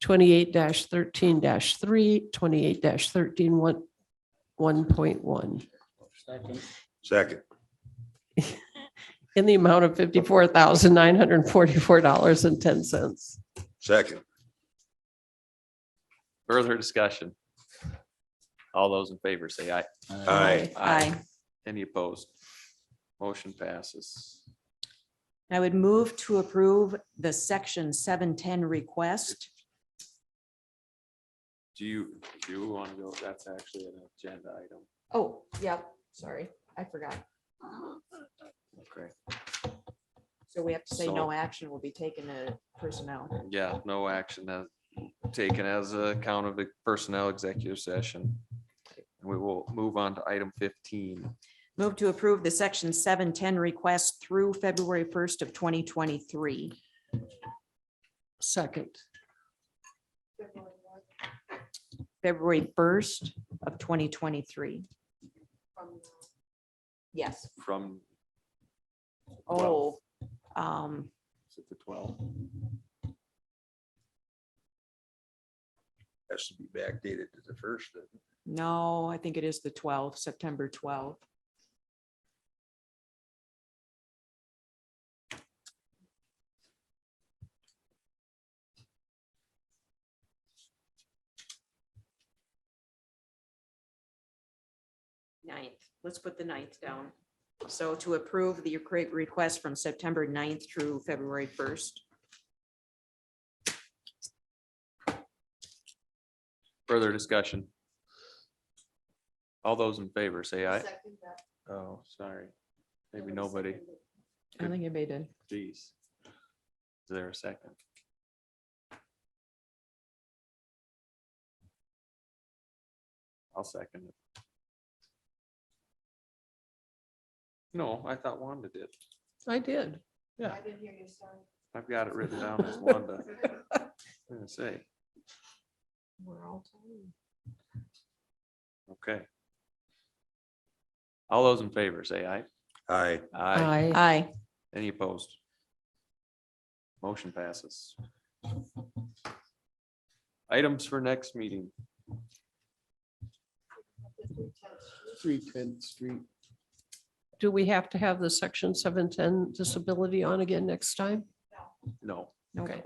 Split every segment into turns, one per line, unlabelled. twenty-eight thirteen three, twenty-eight thirteen one, one point one
Second.
Second.
in the amount of fifty-four thousand nine hundred and forty-four dollars and ten cents.
Second.
Further discussion? All those in favor say aye.
Aye.
Aye.
Any opposed? Motion passes.
I would move to approve the section seven ten request.
Do you, do you want to go? That's actually an agenda item.
Oh, yep, sorry, I forgot.
Okay.
So we have to say
So-
no action will be taken to personnel.
Yeah, no action as taken as a count of the personnel executive session. And We will move on to item fifteen.
Move to approve the section seven ten request through February first of twenty twenty-three.
Second.
February first of twenty twenty-three. Yes.
from
Oh, um,
is it the twelve.
Has to be backdated to the first.
no, I think it is the twelfth, September twelfth. Ninth, let's put the ninth down. So to approve the create request from September 9th through February first.
Further discussion? All those in favor say aye. Oh, sorry. Maybe nobody.
I think it made it.
Jeez. Is there a second? I'll second it. No, I thought Wanda did.
I did.
Yeah. I've got it written down as Wanda. I'm gonna say,
We're all tired.
okay. All those in favor, say aye.
Aye.
Aye.
Aye.
Any opposed? Motion passes. Items for next meeting.
Three tenth street.
Do we have to have the section seven ten disability on again next time?
No.
Nope.
Okay.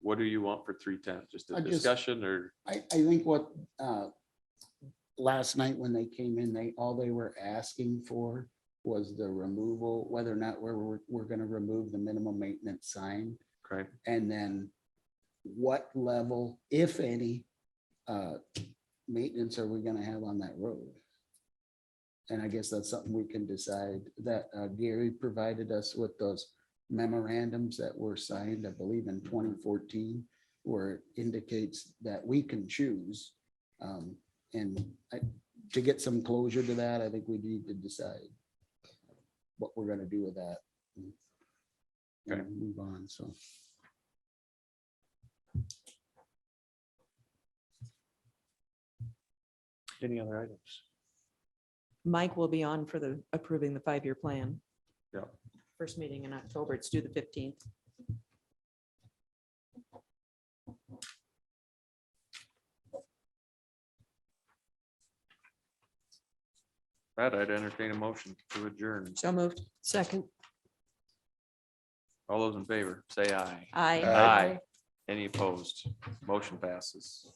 What do you want for three ten? Just
I
a
just-
discussion or?
I, I think what, uh, last night when they came in, they, all they were asking for was the removal, whether or not we're, we're, we're gonna remove the minimum maintenance sign.
Okay,
And then what level, if any, uh, maintenance are we gonna have on that road? And I guess that's something we can decide that uh, Gary provided us with those memorandums that were signed, I believe in twenty fourteen, where it indicates that we can choose. Um, and I, to get some closure to that, I think we need to decide what we're gonna do with that.
Okay.
And move on, so.
any other items?
Mike will be on for the approving the five-year plan.
Yep.
First meeting in October. It's due the fifteenth.
Brad, I'd entertain a motion to adjourn.
So moved.
Second.
All those in favor, say aye.
Aye.
Aye. Any opposed? Motion passes.